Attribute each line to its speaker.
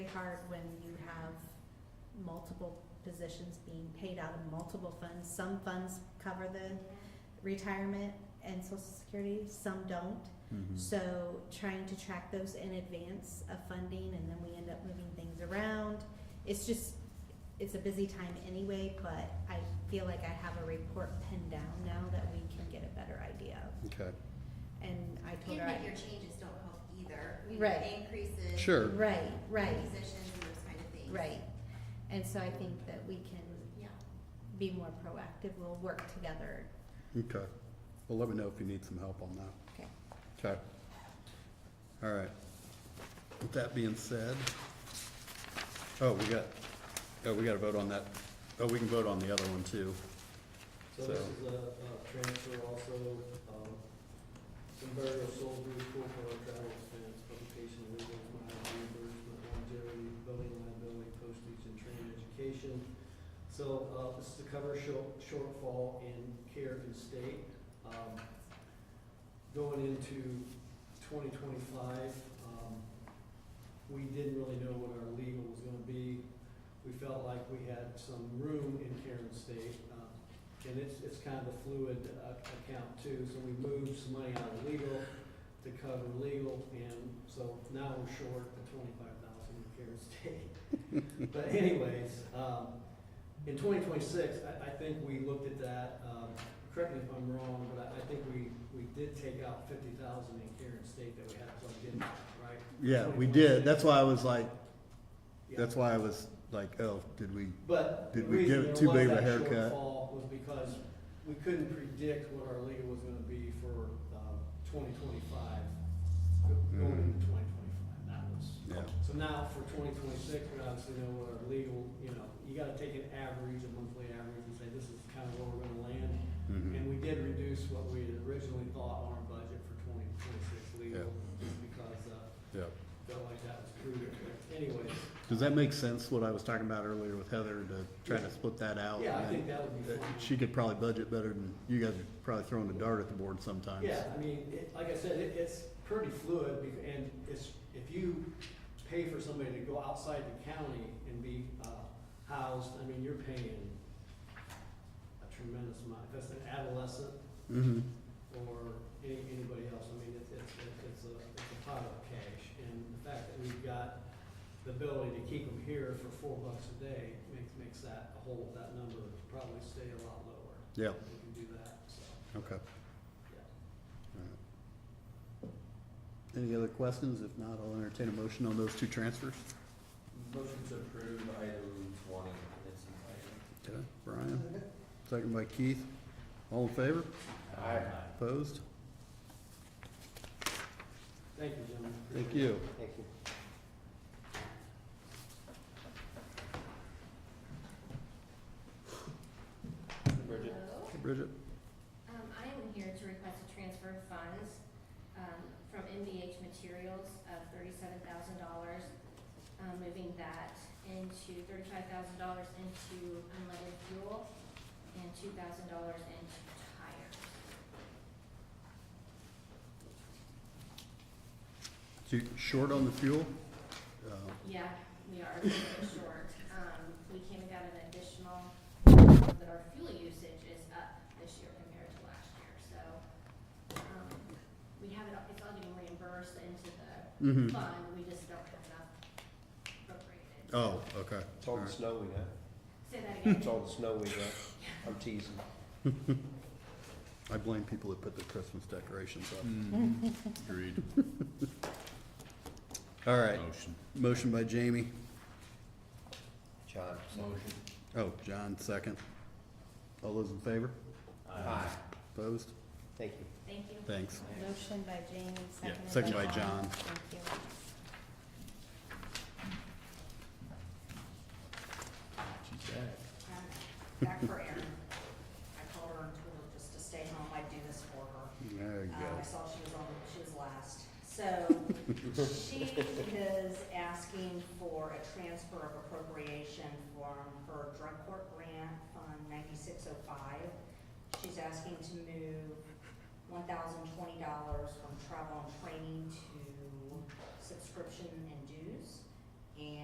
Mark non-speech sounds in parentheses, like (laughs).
Speaker 1: hard when you have multiple positions being paid out of multiple funds. Some funds cover the retirement and social security, some don't.
Speaker 2: Hmm. Mm-hmm.
Speaker 1: So trying to track those in advance of funding and then we end up moving things around. It's just, it's a busy time anyway, but I feel like I have a report pinned down now that we can get a better idea of.
Speaker 2: Okay,
Speaker 1: And I told her,
Speaker 3: Even if your
Speaker 1: I-
Speaker 3: changes don't help either, you
Speaker 1: Right.
Speaker 3: know, increases.
Speaker 2: Sure.
Speaker 1: right, right,
Speaker 3: Positions and those kind of things.
Speaker 1: right. And so I think that we can
Speaker 3: Yeah.
Speaker 1: be more proactive, we'll work together.
Speaker 2: okay. Well, let me know if you need some help on that.
Speaker 1: Okay.
Speaker 2: Okay. All right. With that being said, oh, we got, oh, we got to vote on that. Oh, we can vote on the other one too.
Speaker 4: So this is a, a transfer also, um, some burial sold through school for our travel expense, publication, legal, mileage reimbursement, longevity, building liability, postage, and training education. So, uh, this is to cover short, shortfall in care and state. Um, going into twenty twenty-five, um, we didn't really know what our legal was gonna be. We felt like we had some room in care and state, uh, and it's, it's kind of a fluid uh, account too, so we moved some money out of legal to cover legal, and so now we're short the twenty-five thousand in care state. But anyways, um, in twenty twenty-six, I, I think we looked at that, um, correct me if I'm wrong, but I, I think we, we did take out fifty thousand in care and state that we had plugged in, right?
Speaker 2: Yeah, we did. That's why I was like,
Speaker 4: Yeah.
Speaker 2: that's why I was like, oh, did we?
Speaker 4: But the
Speaker 2: Did we give it
Speaker 4: reason there
Speaker 2: too
Speaker 4: was
Speaker 2: big of a
Speaker 4: that
Speaker 2: haircut?
Speaker 4: shortfall was because we couldn't predict what our legal was gonna be for, um, twenty twenty-five, going
Speaker 2: Mhm.
Speaker 4: into twenty twenty-five, that was.
Speaker 2: Yeah,
Speaker 4: So now for twenty twenty-six, we obviously know what our legal, you know, you gotta take an average, a monthly average, and say this is kind of where we're gonna land.
Speaker 2: mhm,
Speaker 4: And we did reduce what we had originally thought on our budget for twenty twenty-six legal, just because, uh,
Speaker 2: yeah.
Speaker 4: felt like that was prudent, but anyways.
Speaker 2: Does that make sense, what I was talking about earlier with Heather, to try to split that out?
Speaker 4: Yeah, I
Speaker 2: and
Speaker 4: think that would be
Speaker 2: that
Speaker 4: fine.
Speaker 2: Oh, Uh, She could probably budget better than, you guys are probably throwing a dart at the board sometimes.
Speaker 4: Yeah, I mean, it, like I said, it, it's pretty fluid, bec- and it's, if you pay for somebody to go outside the county and be, uh, housed, I mean, you're paying a tremendous amount, if that's an adolescent
Speaker 2: Mhm.
Speaker 4: or any, anybody else, I mean, it's, it's, it's a, it's a pile of cash, and the fact that we've got the ability to keep them here for four bucks a day makes, makes that whole, that number probably stay a lot lower.
Speaker 2: Yeah,
Speaker 4: We can do that, so,
Speaker 2: okay.
Speaker 4: yeah.
Speaker 2: Alright. Any other questions? If not, I'll entertain a motion on those two transfers.
Speaker 5: Motion to approve item twenty in its
Speaker 2: Okay,
Speaker 5: entirety.
Speaker 2: Brian, second by Keith. All in favor? Opposed?
Speaker 4: Thank you, gentlemen.
Speaker 2: Thank you.
Speaker 4: Thank you.
Speaker 5: Bridget?
Speaker 3: Hello?
Speaker 2: Bridget?
Speaker 3: Um, I am here to request a transfer of funds, um, from MVH Materials of thirty-seven thousand dollars, um, moving that into thirty-five thousand dollars into unleaded fuel and two thousand dollars into tires.
Speaker 2: So you short on the fuel? Uh,
Speaker 3: Yeah, we are a little bit short. Um, we came and got an additional, but our fuel usage is up this year compared to last year, so, um, we have it, it's all getting reimbursed into the
Speaker 2: mhm.
Speaker 3: fund, we just don't have enough appropriated.
Speaker 2: Oh, okay.
Speaker 6: It's all the snow we got.
Speaker 3: Say that again.
Speaker 6: It's all the snow we got. I'm teasing.
Speaker 2: I blame people that put their Christmas decorations up.
Speaker 7: Mm-hmm. Agreed.
Speaker 2: (laughs) All right,
Speaker 7: Motion.
Speaker 2: motion by Jamie.
Speaker 6: John,
Speaker 5: Motion.
Speaker 2: Oh, John, second. All those in favor?
Speaker 6: Aye.
Speaker 2: Opposed?
Speaker 6: Thank you.
Speaker 3: Thank you.
Speaker 2: Thanks.
Speaker 1: Motion by Jamie,
Speaker 2: Yeah,
Speaker 1: seconded by John.
Speaker 2: second by John.
Speaker 1: Thank you.
Speaker 7: She's back.
Speaker 8: I'm Um, Back for Erin. I called her and told her just to stay home, I'd do this for her.
Speaker 2: There you
Speaker 8: Uh, I
Speaker 2: go.
Speaker 8: saw she was on, she was last. So
Speaker 2: (laughs)
Speaker 8: she is asking for a transfer of appropriation from her drug court grant fund ninety-six oh five. She's asking to move one thousand twenty dollars from travel and training to subscription and dues. And